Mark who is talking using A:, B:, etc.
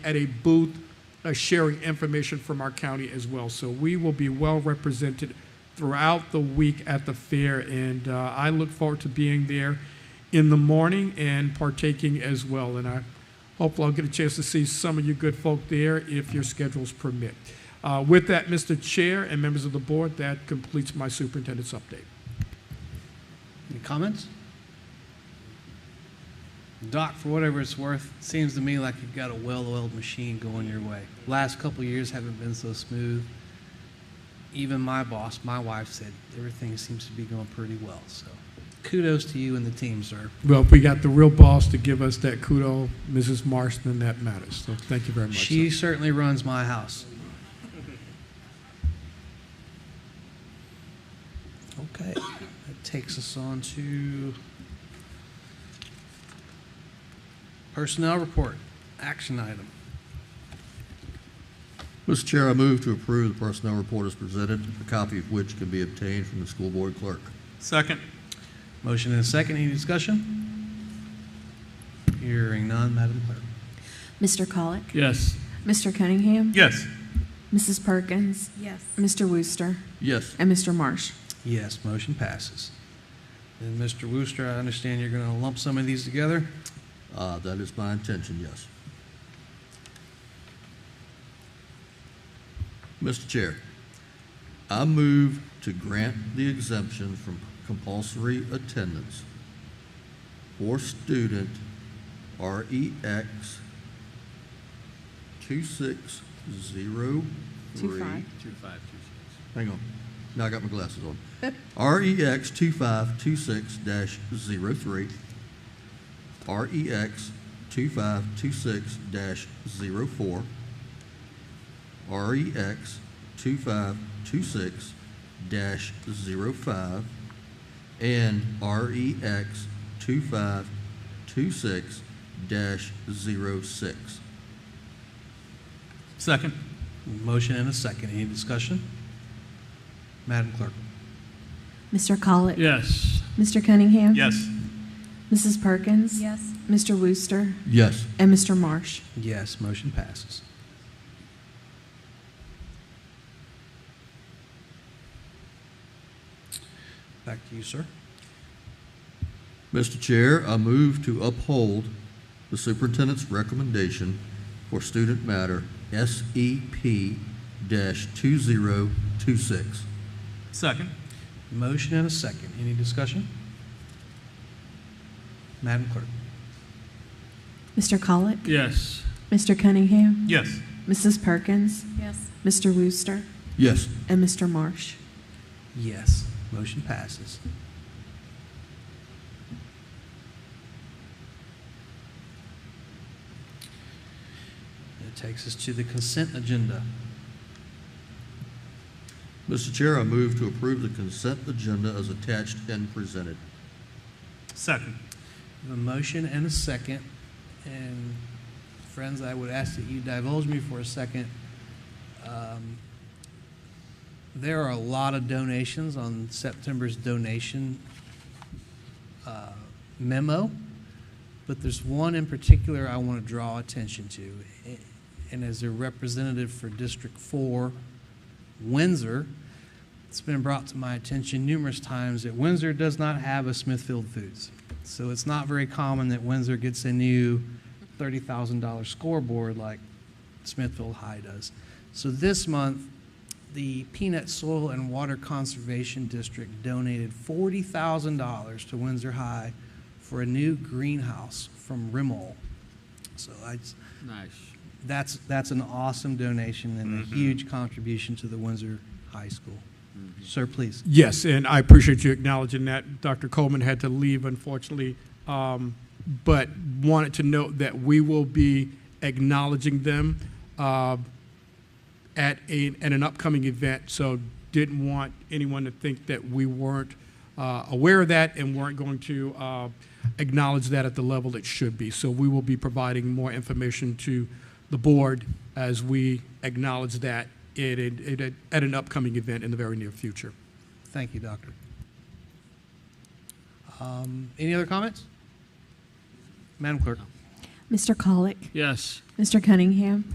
A: at a booth, uh, sharing information from our county as well. So we will be well represented throughout the week at the fair, and uh, I look forward to being there in the morning and partaking as well. And I hopefully I'll get a chance to see some of you good folk there if your schedules permit. Uh, With that, Mr. Chair and members of the board, that completes my superintendent's update.
B: Any comments? Doc, for whatever it's worth, seems to me like you've got a well-oiled machine going your way. Last couple of years haven't been so smooth. Even my boss, my wife said, everything seems to be going pretty well, so kudos to you and the team, sir.
A: Well, if we got the real boss to give us that kudo, Mrs. Marston, that matters. So thank you very much.
B: She
A: sir.
B: certainly runs my house. Okay, that takes us on to personnel report, action item.
C: Mr. Chair, I move to approve the personnel report as presented, a copy of which can be obtained from the school board clerk.
D: Second.
B: Motion and a second, any discussion? Hearing none, Madam Clerk.
E: Mr. Colick?
D: Yes.
E: Mr. Cunningham?
D: Yes.
E: Mrs. Perkins?
F: Yes.
E: Mr. Wooster?
C: Yes.
E: And Mr. Marsh?
B: Yes, motion passes. And Mr. Wooster, I understand you're going to lump some of these together?
C: Uh, that is my intention, yes. Mr. Chair, I move to grant the exemption from compulsory attendance for student E REX 2603.
E: Two five.
C: Hang on. Now I got my glasses on. E REX 2526-03, REX 2526-04, REX 2526-05, and E REX 2526-06.
D: Second.
B: Motion and a second, any discussion? Madam Clerk.
E: Mr. Colick?
D: Yes.
E: Mr. Cunningham?
D: Yes.
E: Mrs. Perkins?
F: Yes.
E: Mr. Wooster?
C: Yes.
E: And Mr. Marsh?
B: Yes, motion passes. Back to you, sir.
C: Mr. Chair, I move to uphold the superintendent's recommendation for student matter SEP two zero two six.
D: Second.
B: Motion and a second. Any discussion? Madam Clerk.
E: Mr. Colick?
D: Yes.
E: Mr. Cunningham?
D: Yes.
E: Mrs. Perkins?
F: Yes.
E: Mr. Wooster?
C: Yes.
E: And Mr. Marsh?
B: Yes, motion passes. That takes us to the consent agenda.
C: Mr. Chair, I move to approve the consent agenda as attached and presented.
D: Second.
B: A motion and a second. And friends, I would ask that you divulge me for a second. Um, There are a lot of donations on September's donation uh, memo, but there's one in particular I want to draw attention to. And as a representative for District Four, Windsor, it's been brought to my attention numerous times that Windsor does not have a Smithfield Foods. So it's not very common that Windsor gets a new $30,000 scoreboard like Smithfield High does. So this month, the Peanut Soil and Water Conservation District donated $40,000 to Windsor High for a new greenhouse from Rimmel. So I, just-
D: Nice.
B: that's, that's an awesome donation and a huge contribution to the Windsor High School. Sir, please.
A: Yes, and I appreciate you acknowledging that. Dr. Coleman had to leave, unfortunately, um, but wanted to note that we will be acknowledging them uh, at, a, at an upcoming event. So didn't want anyone to think that we weren't uh, aware of that and weren't going to uh, acknowledge that at the level it should be. So we will be providing more information to the board as we acknowledge that at, at, at- at an upcoming event in the very near future.
B: Thank you, Doctor. Um, Any other comments? Madam Clerk.
E: Mr. Colick,
F: Yes.
E: Mr. Cunningham,